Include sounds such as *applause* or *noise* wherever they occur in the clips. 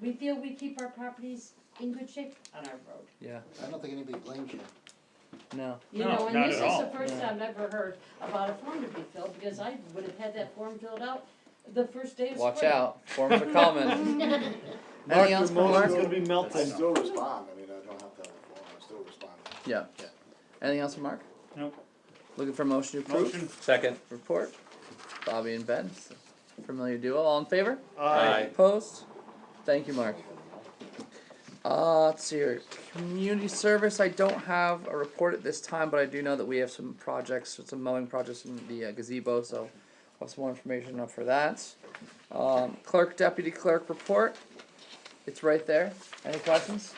We feel we keep our properties in good shape on our road. Yeah. I don't think anybody blames you. No. You No, know, and not this at is the all. first Yeah. I've ever heard about a form to be filled, because I would have had that form filled out the first day of spring. Watch out. Forms are common. Mark, else, your motor's Mark? gonna be I melting. still respond, I mean, I don't have to have a form, I still respond. Yeah. Anything else from Mark? Nope. Looking for a motion to approve. Motion. Second. Report. Bobby and Ben. s- Familiar duo. All in favor? Aye. Opposed? Thank you, Mark. Uh, let's see here. Community service, I don't have a report at this time, but I do know that we have some projects, some mowing projects in the uh, gazebo, so I'll have some more information up for that. Um, clerk, deputy clerk report. It's right there. Any questions?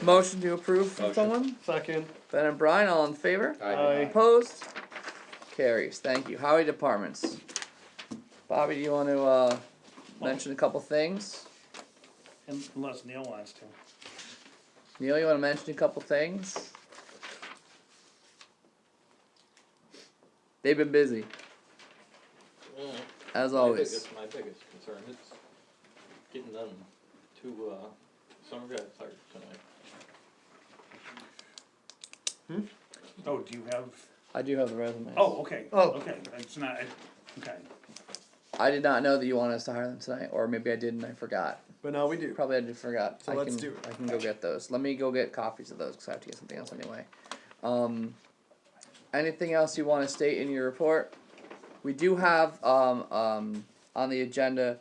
Motion to approve from Motion. someone? Second, Ben and Brian, all in favor? aye. Opposed? Carries, thank you. Highway departments. Bobby, do you wanna, uh, mention a couple things? Unless Neil wants to. Neil, you wanna mention a couple things? They've been busy, as always. My biggest concern is getting them to, uh, summer guys hired tonight. Oh, do you have, I do have the resumes. oh, okay, Oh. okay, it's not, okay. I did not know that you wanted us to hire them tonight, or maybe I did and I forgot. But now we do. Probably I just forgot. So I let's can, do it. I can go get those. Let me go get copies of those because I have to get something else anyway. Um, anything else you want to state in your report? We do have um, um, on the agenda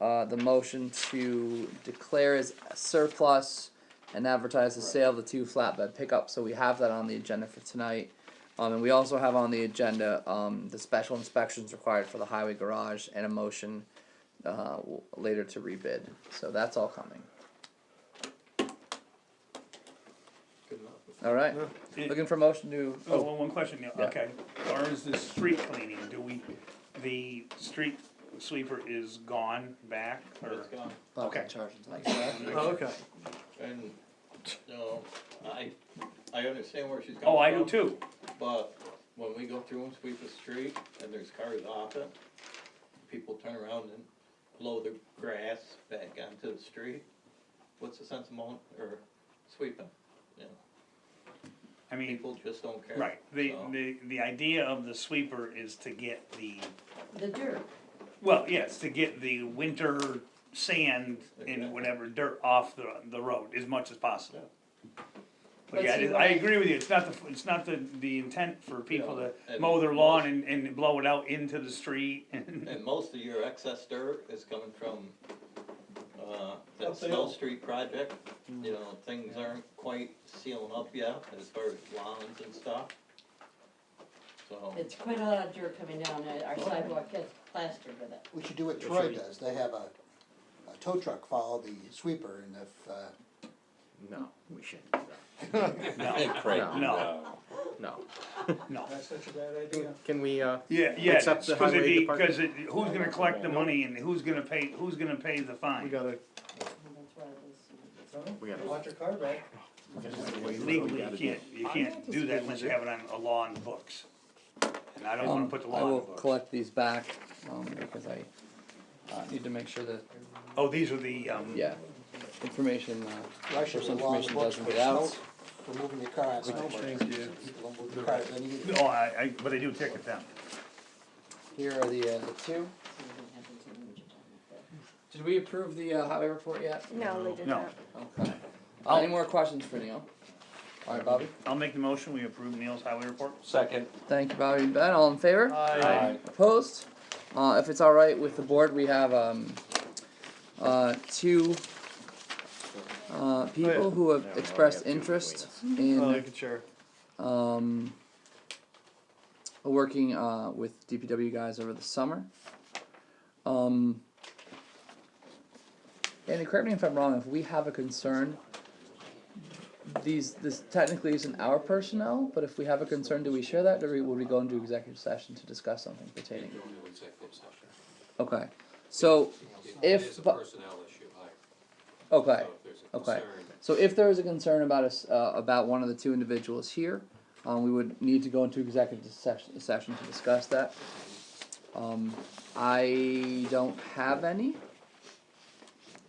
uh, the motion to declare as surplus and advertise the sale of the two flatbed pickups. So we have that on the agenda for tonight. Um, and we also have on the agenda um, the special inspections required for the highway garage and a motion uh, w- later to rebid. So that's all coming. Good enough. All right. It- Looking for motion to. Oh, Oh, well, one question, Neil, Yeah. okay, or is the street cleaning, do we, the street sweeper is gone back, or? It's gone. Not gonna Okay. charge it tonight. Oh, okay. And, no, I, I understand where she's coming from. Oh, I do too, But when we go through and sweep the street and there's cars off it, people turn around and blow the grass back onto the street. What's the sense of mowing or sweeping? You know, I mean, people just don't care. right, the, so. the, the idea of the sweeper is to get the, The dirt, well, yes, to get the winter sand and Exactly. whatever dirt off the, the road as much as possible. But But yeah, see, I- what I I- agree with you, it's not the, it's not the, the intent for people Yeah, to and mow their most- lawn and, and blow it out into the street and. *laughs* And most of your excess dirt is coming from, uh, that Up the Snow hill. Mm. Street project. You know, things aren't quite sealing up yet as far as lawns and stuff. So, it's quite a lot of dirt coming down, and our sidewalk gets plastered with it. We should do what should Troy we- does, they have a, a tow truck follow the sweeper and if, uh, No, we shouldn't do No, that. no, No, no. no. That's such a bad idea. Can we, uh, Yeah, yeah, It's up it's to cause it'd highway be, department. cause it, who's gonna collect the money and who's gonna pay, who's gonna pay the We fine? gotta, That's why this- we gotta. your car back. Legally, you can't, you can't do that unless you have it on a law in the books. And I don't wanna um, put the I law in will the books. collect these back um, because I uh, need to make sure that Oh, these are the, um, yeah information uh, Russia personal along the information books doesn't for get snow, out. for moving your car on snowbirds. Thank you. People don't move their cars, then you get- oh, I, I, but I do ticket them. Here are the uh, the two. something happens in the wintertime like that. Did we approve the uh, highway report yet? No, they did No. not. Okay. Uh, any more questions for Neil? All right, Bobby. I'll make the motion, we approve Neil's highway report. second. Thank you, Bobby and Ben. All in favor? Aye. Opposed? Uh, if it's all right with the board, we have, um, uh, two, uh, people who have Yeah, well, expressed we have two between interest Oh, you in, can share. um, working, uh, with DPW guys over the summer. Um, Andy, correct me if I'm wrong, if we have a concern, these, this technically isn't our personnel, but if we have a concern, do we share that, or would we go into executive session to discuss something pertaining? Okay, so It if, is a but, personnel issue, like, okay, so if there's a okay. concern, So if there is a concern about us, uh, about one of the two individuals here, um, we would need to go into executive session, session to discuss that. Um, I don't have any,